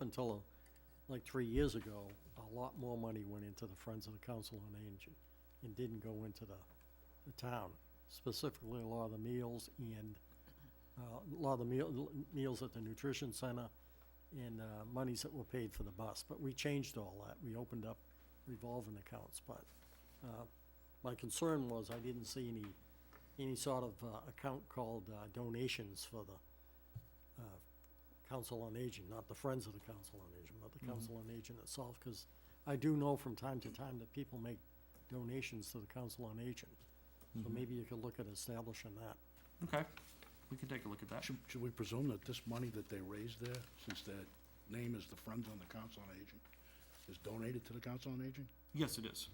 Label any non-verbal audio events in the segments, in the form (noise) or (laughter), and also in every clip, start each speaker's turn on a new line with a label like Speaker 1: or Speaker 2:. Speaker 1: until, like, three years ago, a lot more money went into the Friends of the Council on Aging and didn't go into the, the town, specifically a lot of the meals and, uh, a lot of the meal, meals at the nutrition center and, uh, monies that were paid for the bus. But we changed all that. We opened up revolving accounts, but, uh, my concern was I didn't see any, any sort of, uh, account called, uh, donations for the, uh, Council on Aging, not the Friends of the Council on Aging, but the Council on Aging itself, because I do know from time to time that people make donations to the Council on Aging. So maybe you could look at establishing that.
Speaker 2: Okay, we can take a look at that.
Speaker 3: Should, should we presume that this money that they raised there, since their name is the Friends on the Council on Aging, is donated to the Council on Aging?
Speaker 2: Yes, it is.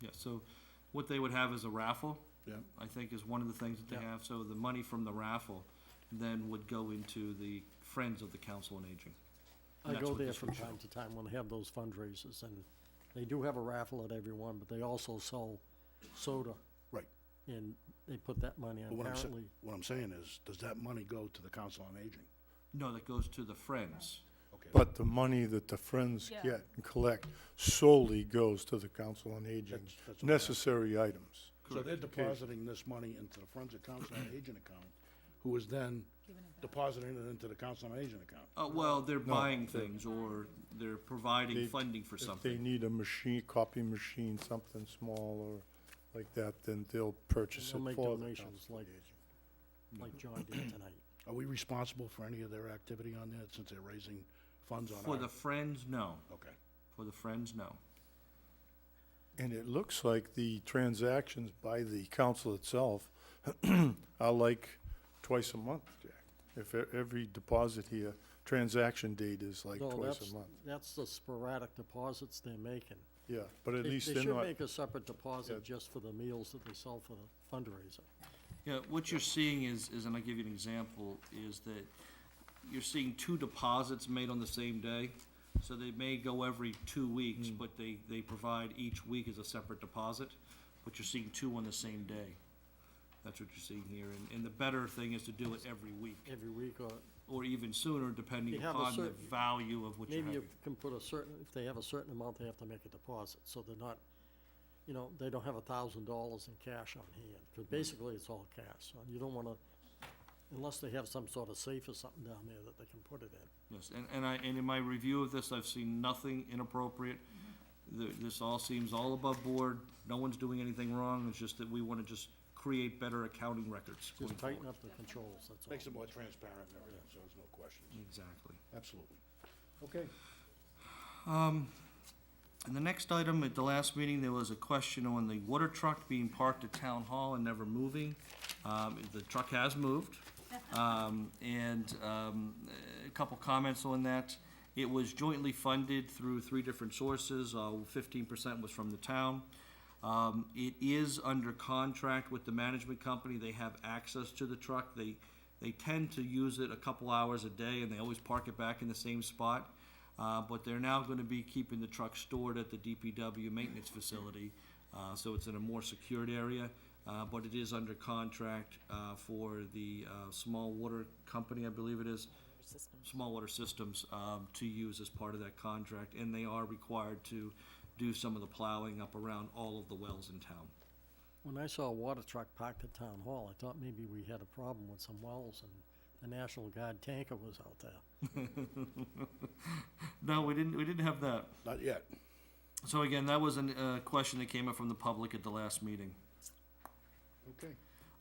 Speaker 2: Yes, so what they would have is a raffle,
Speaker 3: Yeah,
Speaker 2: I think is one of the things that they
Speaker 1: Yeah.
Speaker 2: have. So the money from the raffle then would go into the Friends of the Council on Aging.
Speaker 1: I
Speaker 2: That's
Speaker 1: go
Speaker 2: what
Speaker 1: there
Speaker 2: this
Speaker 1: from
Speaker 2: would show.
Speaker 1: time to time when they have those fundraisers, and they do have a raffle at every one, but they also sell soda,
Speaker 3: right.
Speaker 1: and they put that money
Speaker 3: But
Speaker 1: on
Speaker 3: what I'm, sa-
Speaker 1: apparently.
Speaker 3: what I'm saying is, does that money go to the Council on Aging?
Speaker 2: No, that goes to the Friends.
Speaker 3: Okay.
Speaker 4: But the money that the Friends
Speaker 5: Yeah.
Speaker 4: get and collect solely goes to the Council on Aging,
Speaker 3: That's- that's what I'm asking.
Speaker 4: necessary items.
Speaker 3: So they're depositing this money into the Friends of Council on Aging account, who is then depositing it into the Council on Aging account.
Speaker 2: Uh, well, they're buying things or they're providing
Speaker 4: They-
Speaker 2: funding for
Speaker 4: If they
Speaker 2: something.
Speaker 4: need a machine, copy machine, something small or like that, then they'll purchase
Speaker 1: They'll
Speaker 4: it
Speaker 1: make
Speaker 4: for the
Speaker 1: donations
Speaker 4: Council on
Speaker 1: like,
Speaker 4: Aging.
Speaker 1: like John did tonight.
Speaker 3: Are we responsible for any of their activity on that, since they're raising funds on
Speaker 2: For
Speaker 3: our?
Speaker 2: the Friends, no.
Speaker 3: Okay.
Speaker 2: For the Friends, no.
Speaker 4: And it looks like the transactions by the council itself (clears throat) are like twice a month, Jack. If e- every deposit here, transaction date is like
Speaker 1: No,
Speaker 4: twice
Speaker 1: that's-
Speaker 4: a month.
Speaker 1: That's the sporadic deposits they're making.
Speaker 4: Yeah, but at
Speaker 1: They-
Speaker 4: least
Speaker 1: They
Speaker 4: they're
Speaker 1: should
Speaker 4: not,
Speaker 1: make a separate
Speaker 4: Yeah.
Speaker 1: deposit just for the meals that they sell for the fundraiser.
Speaker 2: Yeah, what you're seeing is, is, and I'll give you an example, is that you're seeing two deposits made on the same day. So they may go every two weeks,
Speaker 1: Hmm.
Speaker 2: but they, they provide each week as a separate deposit, but you're seeing two on the same day. That's what you're seeing here, and, and the better thing is to do it every week,
Speaker 1: every week, or
Speaker 2: or even sooner, depending
Speaker 1: You have a
Speaker 2: upon the
Speaker 1: certain-
Speaker 2: value of what you're
Speaker 1: maybe you
Speaker 2: having.
Speaker 1: can put a certain, if they have a certain amount, they have to make a deposit, so they're not, you know, they don't have a thousand dollars in cash on hand, because
Speaker 4: Mm-hmm.
Speaker 1: basically it's all cash, so you don't wanna, unless they have some sort of safe or something down there that they can put it in.
Speaker 2: Yes, and, and I, and in my review of this, I've seen nothing inappropriate. Th this all seems all above board, no one's doing anything wrong, it's just that we wanna just create better accounting records going
Speaker 1: Just tighten
Speaker 2: forward.
Speaker 1: up the controls, that's all.
Speaker 3: Makes it more transparent and everything, so there's no questions.
Speaker 2: Exactly.
Speaker 3: Mm. Absolutely. Okay.
Speaker 2: And the next item, at the last meeting, there was a question on the water truck being parked at Town Hall and never moving. Um, the truck has moved, um, and, um, a couple comments on that. It was jointly funded through three different sources, uh, fifteen percent was from the town. Um, it is under contract with the management company, they have access to the truck, they, they tend to use it a couple hours a day, and they always park it back in the same spot. Uh, but they're now gonna be keeping the truck stored at the DPW maintenance facility, uh, so it's in a more secured area. Uh, but it is under contract, uh, for the, uh, small water company, I believe it is, small water systems um, to use as part of that contract, and they are required to do some of the plowing up around all of the wells in town.
Speaker 1: When I saw a water truck parked at Town Hall, I thought maybe we had a problem with some wells, and the National Guard tanker was out there.
Speaker 2: No, we didn't. We didn't have that.
Speaker 3: Not yet.
Speaker 2: So again, that was a uh, question that came up from the public at the last meeting.
Speaker 3: Okay.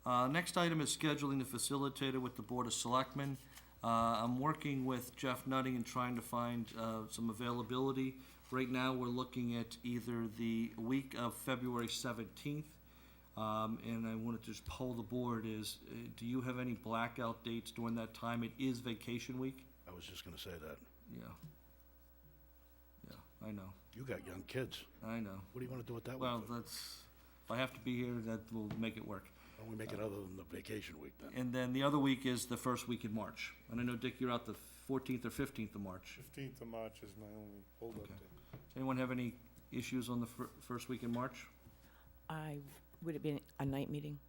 Speaker 2: Uh, next item is scheduling the facilitator with the Board of Selectmen. Uh, I'm working with Jeff Nutting and trying to find, uh, some availability. Right now, we're looking at either the week of February seventeenth, um, and I wanted to just poll the board is, uh, do you have any blackout dates during that time? It is vacation week.
Speaker 3: I was just gonna say that.
Speaker 2: Yeah. Yeah, I know,
Speaker 3: You got young kids.
Speaker 2: I know.
Speaker 3: What do you wanna do with that one?
Speaker 2: Well,
Speaker 3: for?
Speaker 2: that's, if I have to be here, that will make it work.
Speaker 3: Why don't we make it other than the vacation week then?
Speaker 2: And then the other week is the first week in March. And I know, Dick, you're out the fourteenth or fifteenth of March.
Speaker 4: Fifteenth of March is my only holdup
Speaker 2: Okay.
Speaker 4: date.
Speaker 2: Anyone have any issues on the fir- first week in March?
Speaker 5: I, would it be a night meeting?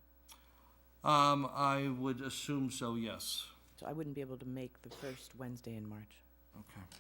Speaker 2: Um, I would assume so, yes.
Speaker 5: So I wouldn't be able to make the first Wednesday in March.
Speaker 2: Okay.